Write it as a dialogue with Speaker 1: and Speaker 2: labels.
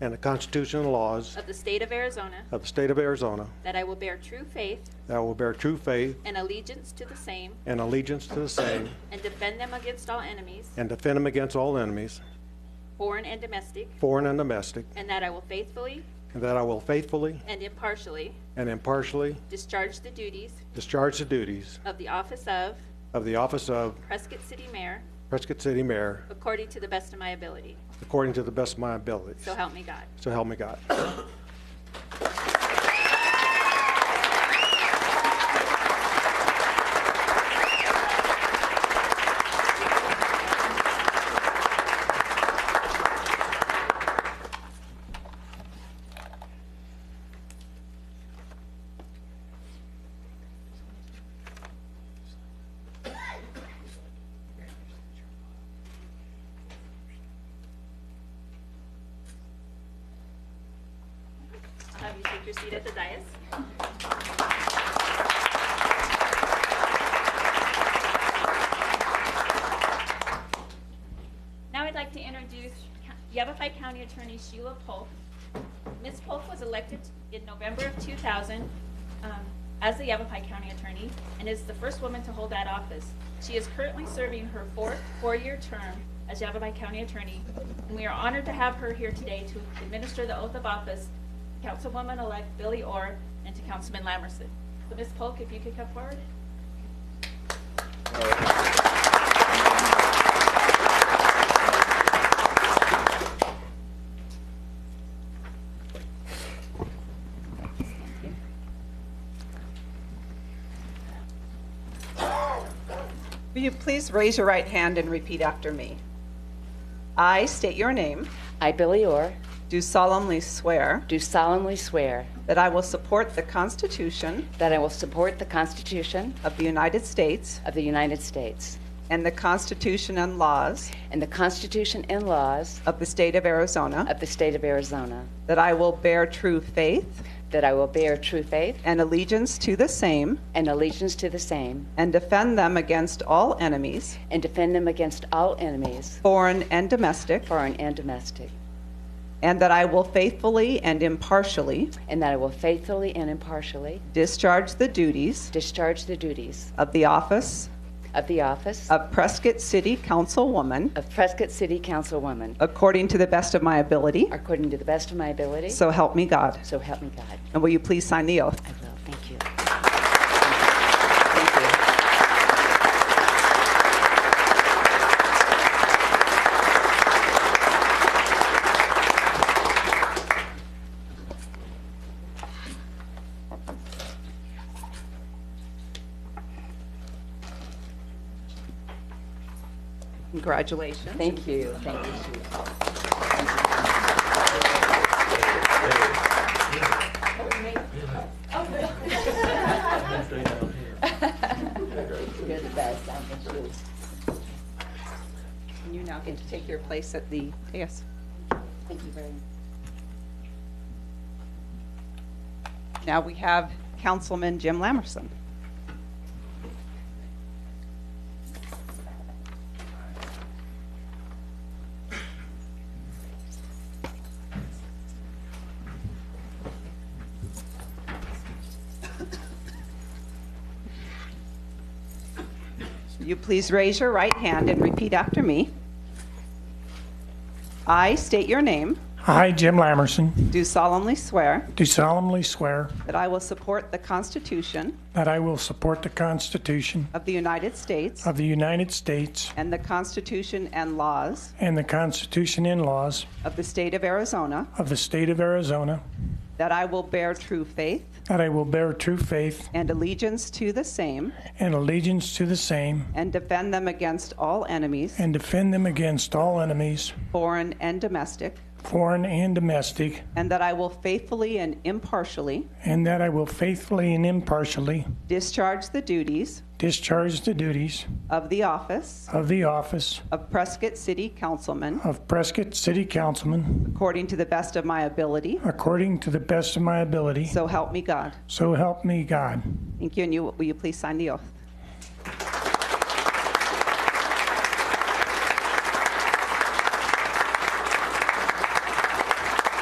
Speaker 1: and the Constitution and laws
Speaker 2: of the state of Arizona,
Speaker 1: of the state of Arizona,
Speaker 2: that I will bear true faith
Speaker 1: that I will bear true faith
Speaker 2: and allegiance to the same
Speaker 1: and allegiance to the same,
Speaker 2: and defend them against all enemies,
Speaker 1: and defend them against all enemies,
Speaker 2: foreign and domestic,
Speaker 1: foreign and domestic,
Speaker 2: and that I will faithfully
Speaker 1: and that I will faithfully
Speaker 2: and impartially
Speaker 1: and impartially
Speaker 2: discharge the duties
Speaker 1: discharge the duties
Speaker 2: of the office of
Speaker 1: of the office of
Speaker 2: Prescott City Mayor
Speaker 1: Prescott City Mayor
Speaker 2: according to the best of my ability.
Speaker 1: according to the best of my abilities.
Speaker 2: So help me God.
Speaker 1: So help me God.
Speaker 2: I'll have you take your seat at the dais. Now I'd like to introduce Yavapai County Attorney Sheila Polk. Ms. Polk was elected in November of 2000 um, as the Yavapai County Attorney and is the first woman to hold that office. She is currently serving her fourth four-year term as Yavapai County Attorney, and we are honored to have her here today to administer the oath of office to Councilwoman-elect Billy Orr and to Councilman Lamerson. So Ms. Polk, if you could come forward.
Speaker 3: Will you please raise your right hand and repeat after me? I state your name,
Speaker 4: I, Billy Orr,
Speaker 3: do solemnly swear
Speaker 4: do solemnly swear
Speaker 3: that I will support the Constitution
Speaker 4: that I will support the Constitution
Speaker 3: of the United States
Speaker 4: of the United States
Speaker 3: and the Constitution and laws
Speaker 4: and the Constitution and laws
Speaker 3: of the state of Arizona,
Speaker 4: of the state of Arizona,
Speaker 3: that I will bear true faith
Speaker 4: that I will bear true faith
Speaker 3: and allegiance to the same
Speaker 4: and allegiance to the same,
Speaker 3: and defend them against all enemies,
Speaker 4: and defend them against all enemies,
Speaker 3: foreign and domestic,
Speaker 4: foreign and domestic,
Speaker 3: and that I will faithfully and impartially
Speaker 4: and that I will faithfully and impartially
Speaker 3: discharge the duties
Speaker 4: discharge the duties
Speaker 3: of the office
Speaker 4: of the office
Speaker 3: of Prescott City Councilwoman
Speaker 4: of Prescott City Councilwoman
Speaker 3: According to the best of my ability.
Speaker 4: according to the best of my ability.
Speaker 3: So help me God.
Speaker 4: So help me God.
Speaker 3: And will you please sign the oath?
Speaker 4: I will. Thank you. Thank you.
Speaker 3: Congratulations.
Speaker 4: Thank you. Thank you. You're the best, I miss you.
Speaker 3: You now get to take your place at the, yes.
Speaker 4: Thank you very much.
Speaker 3: Now we have Councilman Jim Lamerson. Will You please raise your right hand and repeat after me. I state your name,
Speaker 5: I, Jim Lamerson,
Speaker 3: do solemnly swear
Speaker 5: do solemnly swear
Speaker 3: that I will support the Constitution
Speaker 5: that I will support the Constitution
Speaker 3: of the United States
Speaker 5: of the United States
Speaker 3: and the Constitution and laws
Speaker 5: and the Constitution and laws
Speaker 3: of the state of Arizona,
Speaker 5: of the state of Arizona,
Speaker 3: that I will bear true faith
Speaker 5: that I will bear true faith
Speaker 3: and allegiance to the same
Speaker 5: and allegiance to the same,
Speaker 3: and defend them against all enemies,
Speaker 5: and defend them against all enemies,
Speaker 3: foreign and domestic,
Speaker 5: foreign and domestic,
Speaker 3: and that I will faithfully and impartially
Speaker 5: and that I will faithfully and impartially
Speaker 3: discharge the duties
Speaker 5: discharge the duties
Speaker 3: of the office
Speaker 5: of the office
Speaker 3: of Prescott City Councilman
Speaker 5: of Prescott City Councilman
Speaker 3: according to the best of my ability,
Speaker 5: according to the best of my ability.
Speaker 3: so help me God.
Speaker 5: So help me God.
Speaker 3: Thank you, and you, will you please sign the oath?